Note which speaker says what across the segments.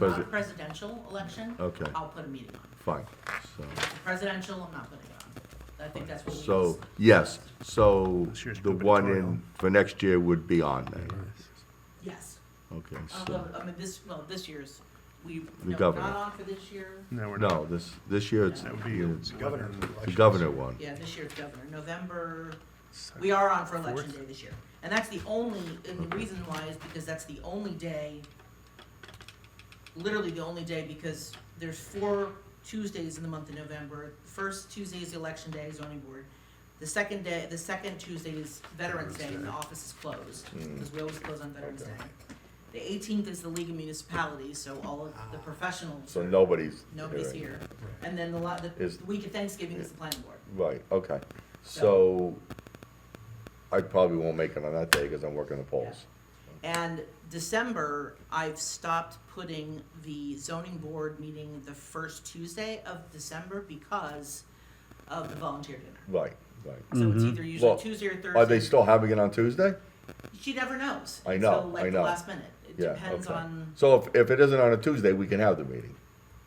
Speaker 1: Not a
Speaker 2: Presi-
Speaker 1: presidential election.
Speaker 2: Okay.
Speaker 1: I'll put a meeting on.
Speaker 2: Fine, so,
Speaker 1: The Presidential, I'm not putting it on. I think that's what we.
Speaker 2: so, yes, so
Speaker 3: This year's
Speaker 2: the one
Speaker 3: gubernatorial.
Speaker 2: in, for next year would be on there.
Speaker 1: Yes.
Speaker 2: Okay, so,
Speaker 1: Although, I mean, this, well, this year's, we, no,
Speaker 2: The
Speaker 1: not
Speaker 2: governor.
Speaker 1: on for this year.
Speaker 3: No, we're not.
Speaker 2: no, this, this year it's
Speaker 3: That would be it's
Speaker 2: the
Speaker 3: governor.
Speaker 2: governor one.
Speaker 1: Yeah, this year's governor, November, we are on for election day this year. And that's the only, and the reason why is because that's the only day, literally the only day, because there's four Tuesdays in the month of November. The First Tuesday is election day, zoning board. The second day, the second Tuesday is Veterans Day, and the office is closed, because we always
Speaker 2: Hmm.
Speaker 1: close on Veterans Day. The eighteenth is the League of Municipalities, so all of the professionals,
Speaker 2: Ah. So nobody's.
Speaker 1: nobody's here. And then the la, the
Speaker 2: Is-
Speaker 1: the week of Thanksgiving is the planning board.
Speaker 2: Right, okay, so I probably won't make it on that day because I'm working the polls.
Speaker 1: And December, I've stopped putting the zoning board meeting the first Tuesday of December because of the volunteer dinner.
Speaker 2: Right, right.
Speaker 1: So it's either usually
Speaker 2: Mm-hmm. Well,
Speaker 1: Tuesday or
Speaker 2: Are they
Speaker 1: Thursday.
Speaker 2: still having it on Tuesday?
Speaker 1: She never knows.
Speaker 2: I
Speaker 1: Until
Speaker 2: know, I
Speaker 1: like the
Speaker 2: know.
Speaker 1: last minute. It
Speaker 2: Yeah,
Speaker 1: depends
Speaker 2: okay.
Speaker 1: on,
Speaker 2: So if, if it isn't on a Tuesday, we can have the meeting.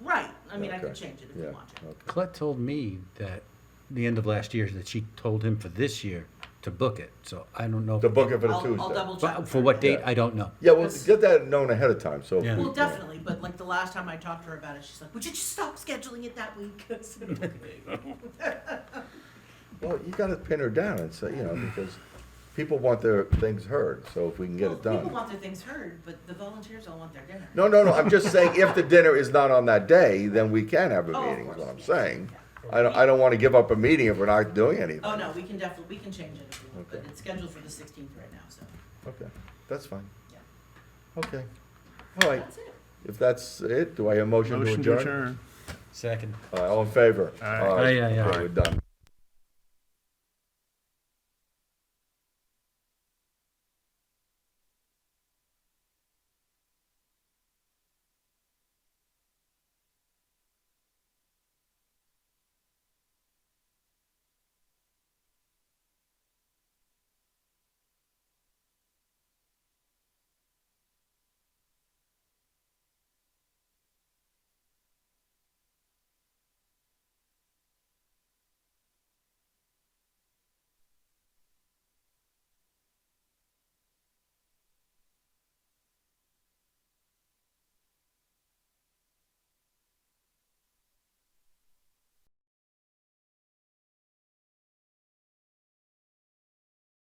Speaker 1: right, I mean, I
Speaker 2: Okay.
Speaker 1: could change it if
Speaker 2: Yeah,
Speaker 1: you want to.
Speaker 2: okay.
Speaker 4: Colette told me that the end of last year that she told him for this year to book it. So I don't know. if-
Speaker 2: To book it for the
Speaker 1: I'll, I'll
Speaker 2: Tuesday.
Speaker 1: double check.
Speaker 4: But
Speaker 1: with
Speaker 4: for
Speaker 1: her.
Speaker 4: what date,
Speaker 2: Yeah.
Speaker 4: I don't know.
Speaker 2: Yeah, well,
Speaker 1: That's-
Speaker 2: get that known ahead of time, so. if
Speaker 4: Yeah.
Speaker 2: we-
Speaker 1: Well, definitely, but like the last time I talked to her about it, she's like, would you just stop scheduling it that week? So-
Speaker 2: Well, you gotta pin her down and say, you know, because people want their things heard, so if we can get
Speaker 1: Well,
Speaker 2: it
Speaker 1: People
Speaker 2: done.
Speaker 1: want their things heard, but the volunteers all want their dinner.
Speaker 2: No, no, no, I'm just saying, if the dinner is not on that day, then we can have a
Speaker 1: Oh, of
Speaker 2: meeting, is what
Speaker 1: course,
Speaker 2: I'm
Speaker 1: yeah,
Speaker 2: saying.
Speaker 1: yeah.
Speaker 2: I don't, I don't wanna give up a meeting if we're not doing anything.
Speaker 1: Oh, no, we can definitely, we can change it if we want, but
Speaker 2: Okay.
Speaker 1: it's scheduled for the sixteenth right now, so,
Speaker 2: Okay, that's fine,
Speaker 1: yeah.
Speaker 2: okay. All right,
Speaker 1: That's it.
Speaker 2: if that's it, do I have a motion to
Speaker 3: Motion to
Speaker 2: adjourn?
Speaker 3: adjourn.
Speaker 4: Second.
Speaker 2: Uh, All in favor?
Speaker 3: Aye.
Speaker 2: All right.
Speaker 4: Aye, aye, aye.
Speaker 2: Okay, We're done.